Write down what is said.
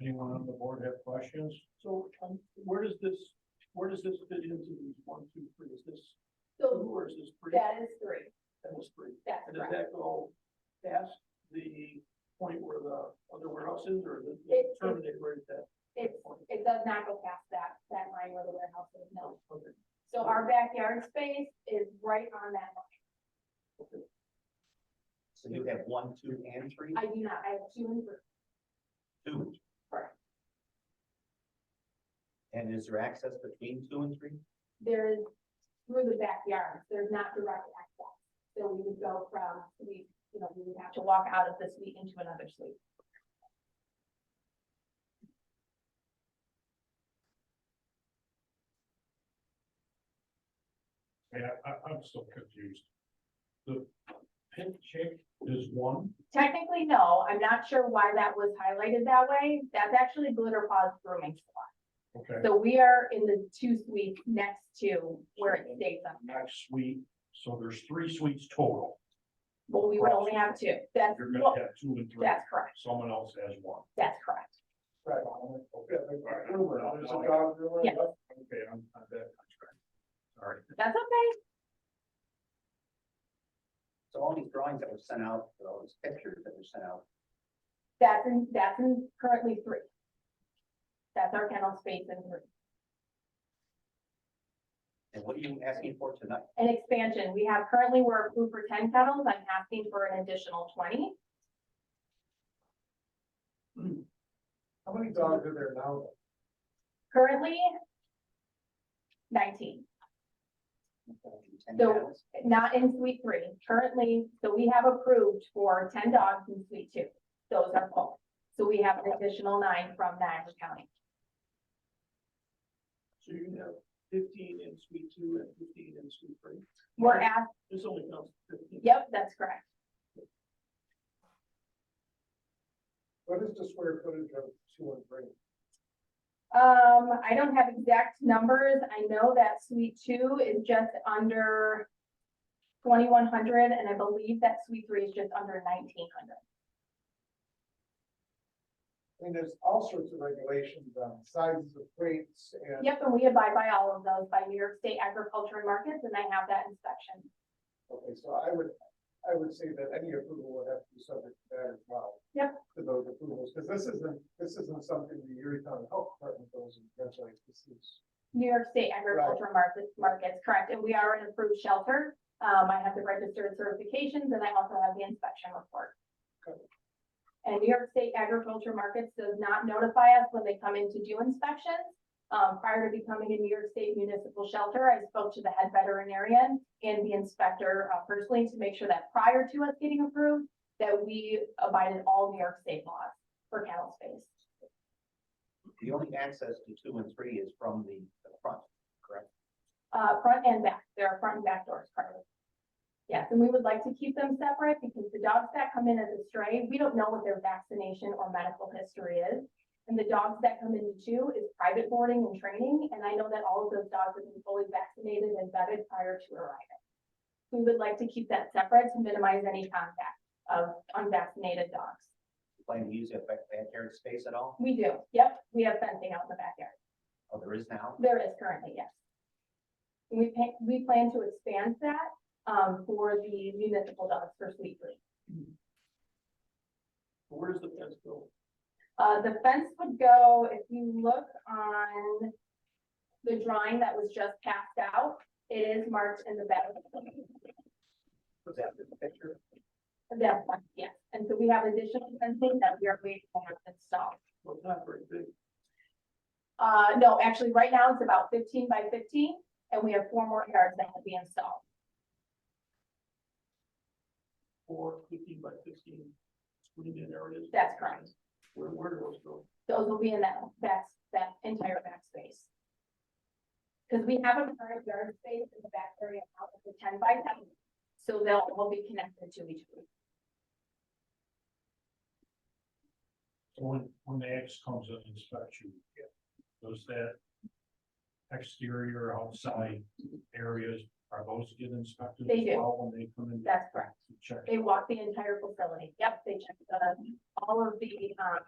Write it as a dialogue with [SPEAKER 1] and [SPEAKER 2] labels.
[SPEAKER 1] Anyone on the board have questions?
[SPEAKER 2] So, um, where does this, where does this fit into these one, two, three? Is this two
[SPEAKER 3] So
[SPEAKER 2] or is this three?
[SPEAKER 3] that is three,
[SPEAKER 2] That was three.
[SPEAKER 3] that's
[SPEAKER 2] And does
[SPEAKER 3] correct.
[SPEAKER 2] that go past the point where the other warehouse is or the
[SPEAKER 3] It- it-
[SPEAKER 2] terminated right at that?
[SPEAKER 3] It's, it does not go past that, that line where the warehouse is, no.
[SPEAKER 2] Okay.
[SPEAKER 3] So our backyard space is right on that line.
[SPEAKER 4] So you have one, two, and three,
[SPEAKER 3] I do not, I have two and three.
[SPEAKER 4] two.
[SPEAKER 3] Correct.
[SPEAKER 4] And is there access between two and three?
[SPEAKER 3] There is through the backyard, there's not direct access. So we would go from, we, you know, we would have to walk out of the suite into another suite.
[SPEAKER 1] Yeah, I, I'm still confused. The pink chick is one,
[SPEAKER 3] Technically, no, I'm not sure why that was highlighted that way. That's actually Glitter Paws Grooming Salon.
[SPEAKER 1] okay,
[SPEAKER 3] So we are in the two suites next to where it states on there.
[SPEAKER 1] next suite, so there's three suites total.
[SPEAKER 3] Well, we would only have two. That's,
[SPEAKER 1] You're
[SPEAKER 3] well,
[SPEAKER 1] gonna have two and three,
[SPEAKER 3] that's correct.
[SPEAKER 1] someone else has one.
[SPEAKER 3] That's correct.
[SPEAKER 2] Right.
[SPEAKER 1] Okay,
[SPEAKER 2] There's a dog there.
[SPEAKER 3] Yes.
[SPEAKER 1] Okay, I'm, I'm back on track. All right,
[SPEAKER 3] That's okay.
[SPEAKER 4] So all these drawings that were sent out, or all these pictures that were sent out,
[SPEAKER 3] That's in, that's in currently three. That's our kennel space in three.
[SPEAKER 4] and what are you asking for tonight?
[SPEAKER 3] An expansion, we have currently, we're approved for ten kennels. I'm asking for an additional twenty.
[SPEAKER 2] How many dogs are there now?
[SPEAKER 3] Currently nineteen.
[SPEAKER 4] Ten
[SPEAKER 3] So-
[SPEAKER 4] panels?
[SPEAKER 3] not in suite three, currently, so we have approved for ten dogs in suite two. Those are full, so we have an additional nine from Niagara County.
[SPEAKER 2] So you have fifteen in suite two and fifteen in suite three.
[SPEAKER 3] We're asked,
[SPEAKER 2] This only counts fifteen.
[SPEAKER 3] yep, that's correct,
[SPEAKER 2] What is the square footage of two and three?
[SPEAKER 3] um, I don't have exact numbers, I know that suite two is just under twenty-one hundred, and I believe that suite three is just under nineteen hundred.
[SPEAKER 2] I mean, there's all sorts of regulations on sizes of plates and.
[SPEAKER 3] Yep, and we abide by all of those by New York State Agriculture and Markets, and I have that inspection.
[SPEAKER 2] Okay, so I would, I would say that any approval would have to be subject to that as well.
[SPEAKER 3] Yep.
[SPEAKER 2] To those approvals, because this isn't, this isn't something the Erie County Health Department goes and regulates, this is.
[SPEAKER 3] New York State agricultural markets, markets, correct, and we are an approved shelter. Um, I have the registered certifications and I also have the inspection report.
[SPEAKER 2] Good.
[SPEAKER 3] And New York State agriculture markets does not notify us when they come in to do inspections. Um, prior to becoming a New York State municipal shelter, I spoke to the head veterinarian and the inspector uh, personally to make sure that prior to us getting approved, that we abided all New York State laws for cattle space.
[SPEAKER 4] The only access to two and three is from the, the front, correct?
[SPEAKER 3] Uh, front and back, there are front and back doors currently. Yes, and we would like to keep them separate because the dogs that come in as a stray, we don't know what their vaccination or medical history is. And the dogs that come in too is private boarding and training, and I know that all of those dogs have been fully vaccinated and vetted prior to arriving. We would like to keep that separate to minimize any contact of unvaccinated dogs.
[SPEAKER 4] You Plan to use that back, backyard space at all?
[SPEAKER 3] We do, yep, we have fencing out in the backyard.
[SPEAKER 4] Oh, there is now?
[SPEAKER 3] There is currently, yes. We pa- we plan to expand that, um, for the municipal dogs for Sweet Green.
[SPEAKER 2] Where's the fence go?
[SPEAKER 3] Uh, the fence would go, if you look on the drawing that was just passed out, it is marked in the back.
[SPEAKER 4] Was that the picture?
[SPEAKER 3] That's, fine, yes, and so we have additional fencing that we are waiting to have installed.
[SPEAKER 2] Well, it's not very big.
[SPEAKER 3] Uh, no, actually, right now it's about fifteen by fifteen, and we have four more yards that will be installed.
[SPEAKER 2] Four fifteen by fifteen screened in areas.
[SPEAKER 3] That's correct.
[SPEAKER 2] Where, where do those go?
[SPEAKER 3] those will be in that back, that entire back space. Because we have a current yard space in the back area out of the ten by ten, so they'll all be connected to each other.
[SPEAKER 1] so when, when the X comes and inspects you, does that exterior outside areas, are those get inspected as
[SPEAKER 3] They do.
[SPEAKER 1] well when they come in?
[SPEAKER 3] That's correct.
[SPEAKER 1] to Check.
[SPEAKER 3] They walk the entire facility. Yep, they check the, all of the, um,